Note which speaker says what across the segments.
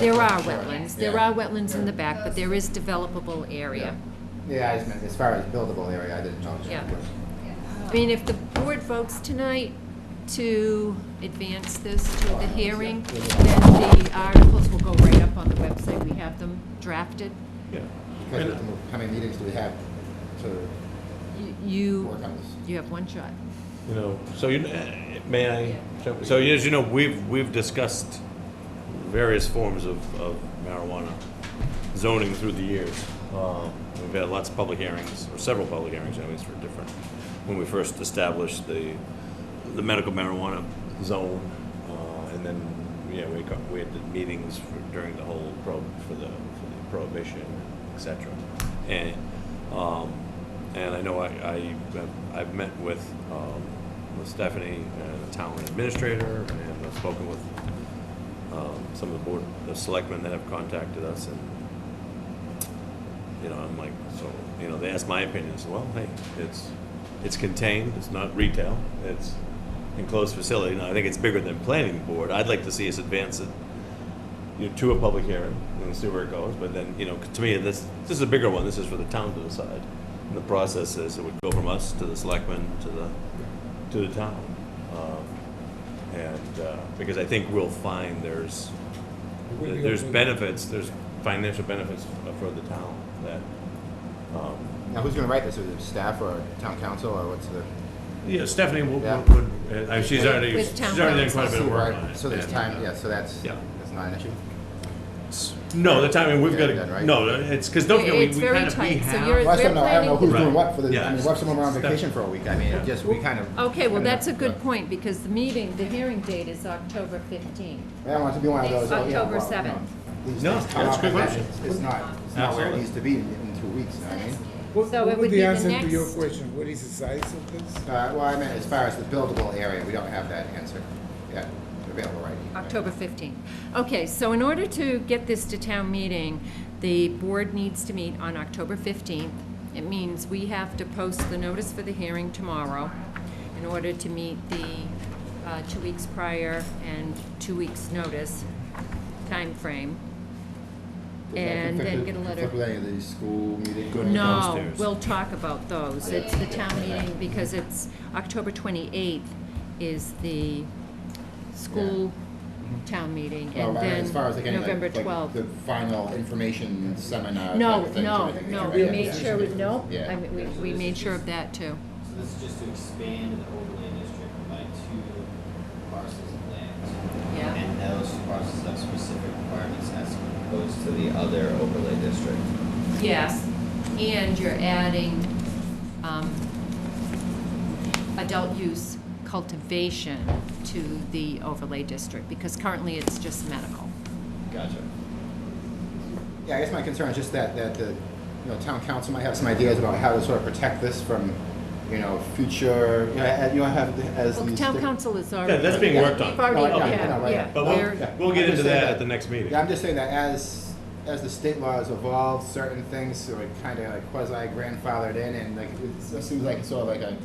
Speaker 1: There are
Speaker 2: Sure.
Speaker 1: wetlands, there
Speaker 2: Yeah.
Speaker 1: are wetlands in the back, but there is developable area.
Speaker 2: Yeah, I just meant, as far as buildable area, I didn't know.
Speaker 1: Yeah. I mean, if the board votes tonight to advance this to the hearing, then the articles will go right up on the website, we have them drafted.
Speaker 3: Yeah.
Speaker 2: Because
Speaker 3: And uh,
Speaker 2: of the- how many meetings do we have to
Speaker 1: You-
Speaker 2: work
Speaker 1: You,
Speaker 2: on this?
Speaker 1: you have one shot.
Speaker 3: You know, so you, eh, may I? so- So as you know, we've, we've discussed various forms of of marijuana zoning through the years. Um, We've had lots of public hearings, or several public hearings, anyways, for different, when we first established the, the medical marijuana zone. uh, And then, yeah, we got, we had the meetings for- during the whole prob, for the, for the prohibition, et cetera. And, um, and I know I, I, I've met with, um, with Stephanie and the town administrator, and I've spoken with, um, some of the board, the selectmen that have contacted us, and, you know, I'm like, so, you know, they asked my opinion, I said, well, hey, it's, it's contained, it's not retail, it's enclosed facility, now, I think it's bigger than planning board, I'd like to see us advance it, you know, to a public hearing, and see where it goes, but then, you know, to me, this, this is a bigger one, this is for the town to decide. And the process is, it would go from us to the selectmen, to the, to the town. Um, And, uh, because I think we'll find there's, there's benefits, there's financial benefits for the town that, um,
Speaker 2: Now, who's gonna write this? Is it staff or town council or what's the?
Speaker 3: yeah, Stephanie would,
Speaker 2: Yeah.
Speaker 3: would, uh, she's
Speaker 1: With-
Speaker 3: already,
Speaker 1: with
Speaker 3: she's
Speaker 1: town
Speaker 3: already done
Speaker 1: council.
Speaker 3: quite a bit of work on it.
Speaker 2: So there's
Speaker 3: and,
Speaker 2: time,
Speaker 3: uh,
Speaker 2: yeah, so that's,
Speaker 3: Yeah.
Speaker 2: that's not an issue.
Speaker 3: No, the timing, we've got
Speaker 2: Getting done,
Speaker 3: to,
Speaker 2: right?
Speaker 3: no, uh, it's, because don't forget,
Speaker 1: It's
Speaker 3: we- we
Speaker 1: very
Speaker 3: kind of, we
Speaker 1: tight, so
Speaker 3: have.
Speaker 1: you're-
Speaker 2: Well, I
Speaker 1: We're
Speaker 2: don't know, I don't know who's
Speaker 3: planning-
Speaker 2: doing what for the,
Speaker 3: Yeah.
Speaker 2: I mean, what if someone were on
Speaker 3: Steph-
Speaker 2: vacation for a week? I mean, it just, we kind of.
Speaker 1: Okay, well,
Speaker 2: I don't know.
Speaker 1: that's a good
Speaker 2: Yeah.
Speaker 1: point, because the meeting, the hearing date is October 15th.
Speaker 2: I don't want it to be one of those, oh, yeah,
Speaker 1: October
Speaker 2: well, you know,
Speaker 1: 7th.
Speaker 2: these
Speaker 3: No,
Speaker 2: things come
Speaker 3: that's
Speaker 2: up
Speaker 3: a good
Speaker 2: and that
Speaker 3: question.
Speaker 2: It's it's not, it's not where it
Speaker 3: Absolutely.
Speaker 2: needs to be in in two weeks, you know what I mean?
Speaker 4: What
Speaker 1: So it
Speaker 4: what
Speaker 1: would
Speaker 4: would
Speaker 1: be
Speaker 4: the
Speaker 1: the
Speaker 4: answer to your
Speaker 1: next-
Speaker 4: question? What is the size of this?
Speaker 2: Uh, well, I meant as far as the buildable area, we don't have that answer yet available right now.
Speaker 1: October 15th. Okay, so in order to get this to town meeting, the board needs to meet on October 15th. It means we have to post the notice for the hearing tomorrow in order to meet the uh, two weeks prior and two weeks' notice timeframe. And then get a letter.
Speaker 2: Conflict with any of these school meetings?
Speaker 1: No,
Speaker 3: downstairs.
Speaker 1: we'll talk about those. It's the town meeting, because it's, October 28th is the school town meeting,
Speaker 2: Well,
Speaker 1: and
Speaker 2: I mean, as far as like
Speaker 1: then
Speaker 2: any, like-
Speaker 1: November
Speaker 2: like
Speaker 1: 12th.
Speaker 2: The final information seminar. type
Speaker 1: No,
Speaker 2: of Uh, things,
Speaker 1: no,
Speaker 2: everything,
Speaker 1: no,
Speaker 2: right?
Speaker 1: we
Speaker 2: Yeah.
Speaker 1: made sure, we no,
Speaker 2: Yeah.
Speaker 1: I mean, we, we made sure of that, too.
Speaker 5: So this is just to expand the overlay district by two parcels of land.
Speaker 1: Yeah.
Speaker 5: And those parcels have specific requirements as opposed to the other overlay district.
Speaker 1: Yes, and you're adding um, adult use cultivation to the overlay district, because currently it's just medical.
Speaker 5: Gotcha.
Speaker 2: Yeah, I guess my concern is just that, that the, you know, town council might have some ideas about how to sort of protect this from, you know, future, you know, and you have, as
Speaker 1: Well,
Speaker 2: these.
Speaker 1: town
Speaker 2: thi-
Speaker 1: council is already.
Speaker 3: Yeah, that's being worked on.
Speaker 1: We've already,
Speaker 2: No, I know, I know,
Speaker 1: yeah,
Speaker 2: Oh, right.
Speaker 1: yeah.
Speaker 3: But
Speaker 1: we're-
Speaker 2: Yeah.
Speaker 3: We'll get
Speaker 2: I'm just
Speaker 3: into
Speaker 2: saying
Speaker 3: that at the next meeting.
Speaker 2: Yeah, I'm just saying that as, as the state laws evolve, certain things sort of kind of like quasi grandfathered in and like, it seems like it's sort of like a,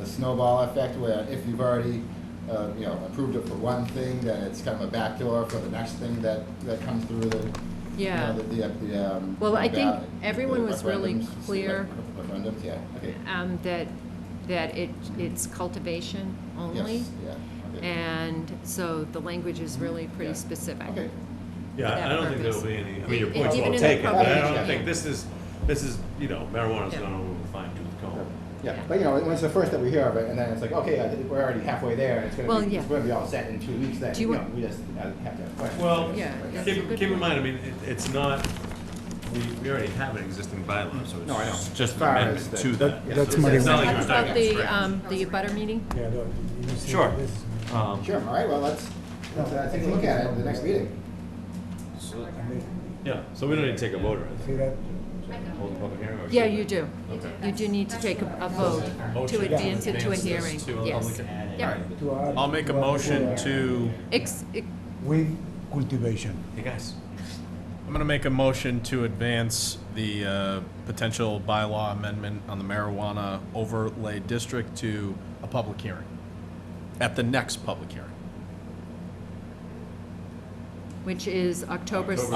Speaker 2: a snowball effect where if you've already, uh, you know, approved it for one thing, then it's kind of a backdoor for the next thing that, that comes through the, you
Speaker 1: Yeah.
Speaker 2: know, the, the, the, um.
Speaker 1: Well, I think
Speaker 2: ballot-
Speaker 1: everyone
Speaker 2: the
Speaker 1: was really
Speaker 2: referendums,
Speaker 1: clear.
Speaker 2: Referendums, yeah, okay.
Speaker 1: Um, that, that it, it's cultivation only.
Speaker 2: Yes, yeah, okay.
Speaker 1: And so the language is really pretty
Speaker 2: Yeah.
Speaker 1: specific.
Speaker 2: Okay.
Speaker 3: Yeah, I
Speaker 1: that
Speaker 3: don't think
Speaker 1: purpose.
Speaker 3: there'll be any, I mean, your
Speaker 1: It-
Speaker 3: point's
Speaker 1: even
Speaker 3: well
Speaker 1: in the
Speaker 3: taken, but I
Speaker 2: program,
Speaker 3: don't think
Speaker 1: yeah.
Speaker 3: this is, this is, you know, marijuana's
Speaker 1: Yeah.
Speaker 3: not a fine tooth comb.
Speaker 2: Yeah, but you know, when it's the first that we hear of it, and then it's like, okay, I think we're already halfway there, and it's gonna
Speaker 1: Well,
Speaker 2: be,
Speaker 1: yeah.
Speaker 2: it's gonna be all set in two weeks. Then
Speaker 1: Do you
Speaker 2: you
Speaker 1: want-
Speaker 2: know, we just uh, have to have questions.
Speaker 3: Well,
Speaker 1: Yeah, that's a
Speaker 3: keep,
Speaker 1: good
Speaker 3: keep in
Speaker 1: point.
Speaker 3: mind, I mean, it, it's not, we, we already have an existing bylaw, so
Speaker 2: No, I know.
Speaker 3: it's just an
Speaker 2: Far as
Speaker 3: amendment
Speaker 2: the-
Speaker 3: to
Speaker 2: That-
Speaker 3: that.
Speaker 4: that's
Speaker 3: So
Speaker 4: money
Speaker 3: it's not
Speaker 4: well-
Speaker 3: like
Speaker 1: How
Speaker 3: we're
Speaker 1: about uh,
Speaker 3: talking
Speaker 1: the,
Speaker 3: about
Speaker 1: um, the abutter meeting?
Speaker 4: Yeah, no, you said
Speaker 3: Sure.
Speaker 4: this-
Speaker 3: scrap. Um,
Speaker 2: sure. All right. Well, let's let's uh, take a look at it at the next meeting.
Speaker 4: I mean,
Speaker 3: Yeah, so we don't need to take a vote or
Speaker 4: See
Speaker 3: anything.
Speaker 4: that?
Speaker 3: Hold the public hearing or
Speaker 1: Yeah,
Speaker 3: should we?
Speaker 1: you do.
Speaker 3: Okay.
Speaker 1: You do need to take a a vote to
Speaker 6: Motion to
Speaker 1: advance it to a
Speaker 6: advance this
Speaker 1: hearing,
Speaker 6: to a
Speaker 1: yes.
Speaker 6: public-
Speaker 5: Add it.
Speaker 1: Yeah.
Speaker 4: To add-
Speaker 6: I'll make a
Speaker 4: to add
Speaker 6: motion to,
Speaker 1: Ex, ex-
Speaker 4: With cultivation.
Speaker 3: Hey, guys.
Speaker 6: I'm going to make a motion to advance the uh, potential bylaw amendment on the marijuana overlay district to a public hearing, at the next public hearing.
Speaker 7: which is October
Speaker 1: October